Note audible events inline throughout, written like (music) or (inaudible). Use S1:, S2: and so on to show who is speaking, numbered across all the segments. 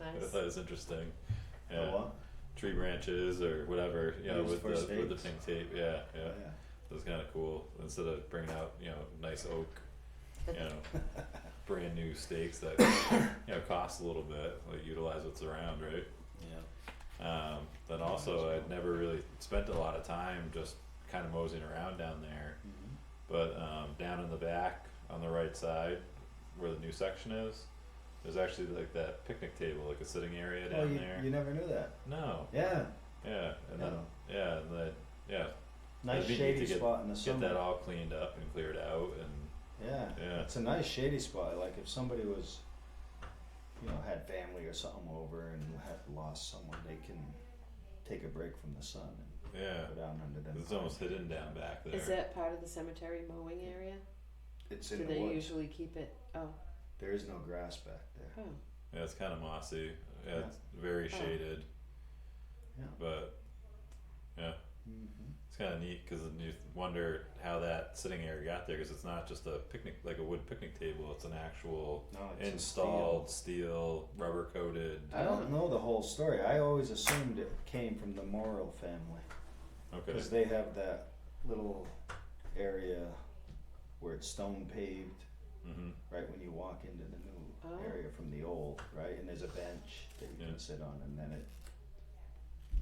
S1: I
S2: nice.
S1: thought it was interesting.
S3: Oh,
S1: Yeah,
S3: wow.
S1: tree branches or whatever. You know, with
S3: Used for
S1: the with the
S3: stakes.
S1: pink tape. Yeah, yeah.
S3: Yeah.
S1: It was kind of cool. Instead of bringing out you know nice oak, you know, brand new stakes that you know cost a little bit. Like utilize what's around, right?
S3: Yeah.
S1: Um, then also, I'd never really spent a lot of time just kind of moseying around down there.
S3: Mhm.
S1: But um, down in the back on the right side, where the new section is, there's actually like that picnic table, like a sitting area
S3: Oh,
S1: down
S3: you,
S1: there.
S3: you never knew that.
S1: no,
S3: Yeah.
S1: yeah, and then
S3: No.
S1: yeah, and then yeah,
S3: Nice
S1: That'd be neat
S3: shady
S1: to get-
S3: spot in the
S1: get
S3: summer.
S1: that all cleaned up and cleared out, and
S3: Yeah.
S1: Yeah.
S3: It's a nice shady spot. Like if somebody was, you know, had family or something over and had lost someone, they can take a break from the sun and
S1: yeah,
S3: go down under them.
S1: it's
S3: pine
S1: almost
S3: trees.
S1: hidden down back there.
S2: Is that part of the cemetery mowing area?
S3: It's
S2: Do
S3: in
S2: they
S3: the woods.
S2: usually keep it? Oh,
S3: There is no grass back there.
S2: oh,
S1: Yeah, it's kind of mossy. Yeah,
S3: Yeah.
S1: it's very
S2: Oh.
S1: shaded,
S3: Yeah.
S1: but yeah.
S3: Mm-hmm.
S1: It's kind of neat because you wonder how that sitting area got there because it's not just a picnic, like a wood picnic table. It's an actual
S3: No, it's a Uh,
S1: installed steel, rubber coated.
S3: steel. I don't know the whole story. I always assumed it came from the Morrill family
S1: Okay.
S3: because they have that little area where it's stone paved
S1: Mm-hmm.
S3: right when you walk into the new
S2: Oh.
S3: area from the old, right? And there's a bench that you
S1: Yeah.
S3: can sit on, and then it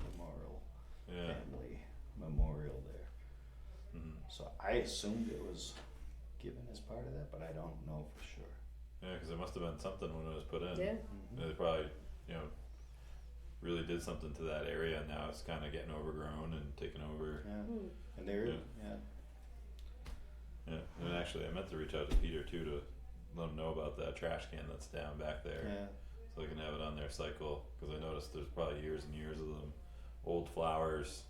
S3: memorial
S1: Yeah.
S3: family memorial there.
S1: Mm-hmm.
S3: So I assumed it was given as part of that, but I don't know for sure.
S1: Yeah, because it must have been something when it was put
S3: Um,
S1: in.
S2: yeah.
S1: They probably, you know, really did something to that area, and now it's kind of getting overgrown and taken over.
S3: Yeah,
S2: Hmm.
S3: and there,
S1: Yeah.
S3: yeah,
S1: Yeah. And actually, I meant to reach out to Peter too to let him know about that trash can that's down back there.
S3: yeah,
S1: so they can have it on their cycle. Because I noticed there's probably years and years of them, old flowers.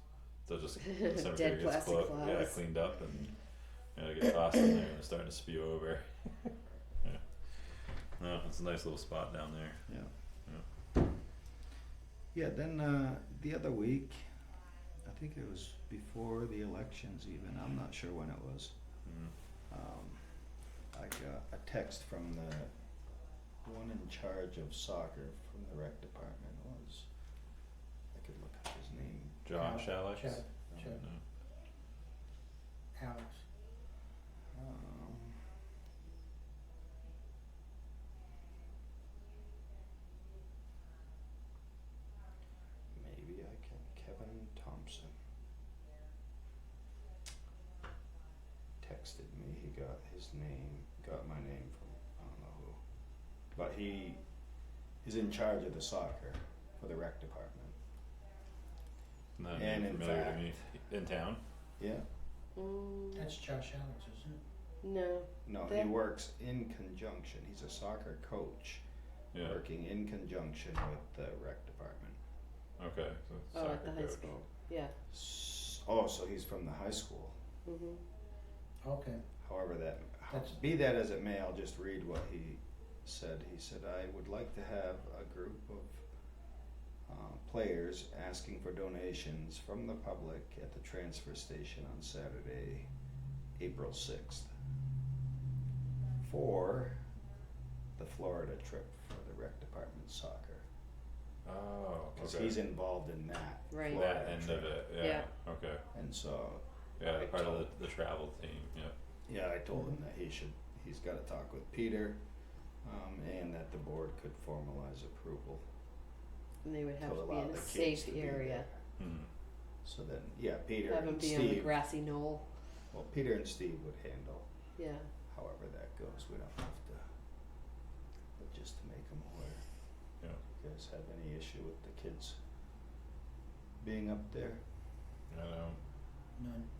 S1: So
S2: (laughs)
S1: just the cemetery
S2: Dead
S1: gets
S2: plastic
S1: clo- yeah,
S2: flowers.
S1: cleaned up and you know, they get tossed in there and it's starting to spew over. (laughs) yeah. No, it's a nice little spot down there.
S3: yeah.
S1: Yeah.
S3: Yeah, then uh, the other week, I think it was before the elections even, I'm not sure when it was.
S1: Mm.
S3: Um, I got a text from the one in charge of soccer from the rec department was, I could look up his name.
S1: Josh, Alex.
S4: Chad,
S3: Um,
S4: Chad,
S1: No.
S4: Alex,
S3: um, Maybe I can, Kevin Thompson. Texted me, he got his name, got my name from, I don't know who. But he is in charge of the soccer for the rec department.
S1: Not
S3: And in
S1: familiar
S3: fact-
S1: to me. In town.
S3: Yeah,
S2: Mm,
S4: that's Josh Alex, isn't
S2: no. Oh,
S3: no, he
S2: That-
S3: works in conjunction, he's a soccer coach,
S1: Yeah.
S3: working in conjunction with the rec department.
S1: Okay. So
S2: Oh,
S1: soccer
S2: at the high
S1: coach.
S2: school. Yeah.
S3: S- Oh, so he's from the high school.
S2: Mhm.
S4: it? Okay,
S3: However, that how-
S4: That's-
S3: be that as it may, I'll just read what he said. He said, "I would like to have a group of uh, players asking for donations from the public at the transfer station on Saturday, April sixth, for the Florida trip for the rec department soccer,
S1: Oh.
S3: because
S1: Okay.
S3: he's involved in that
S2: Right.
S3: Florida
S1: that end
S3: trip.
S1: of it. Yeah. Okay.
S3: And so
S1: Yeah.
S3: I
S1: Part of
S3: told-
S1: the, the travel team. Yeah.
S3: Yeah, I told him that he should, he's gotta talk with Peter, um, and that the board could formalize approval
S2: And they would
S3: to
S2: have to be
S3: allow
S2: in
S3: the
S2: a
S3: kids
S2: safe
S3: to be
S2: area.
S3: there.
S1: Mm.
S3: So then, yeah, Peter
S2: Have them
S3: and
S2: be on the
S3: Steve,
S2: grassy knoll.
S3: well, Peter and Steve would handle
S2: Yeah.
S3: however that goes, we don't have to, but just to make them aware.
S1: Yeah.
S3: You guys have any issue with the kids being up there?
S1: I know.
S4: none,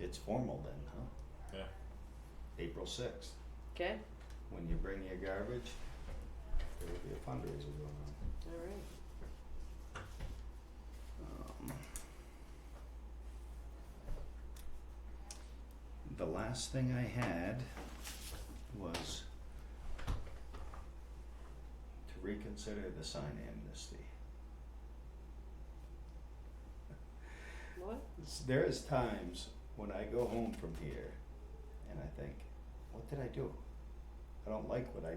S3: It's formal then, huh?
S1: Yeah.
S3: April sixth,
S2: Okay.
S3: when you bring your garbage, there will be a fundraiser going on.
S2: All right.
S3: Um, The last thing I had was to reconsider the sign amnesty.
S2: What?
S3: S- There is times when I go home from here and I think, what did I do? I don't like what I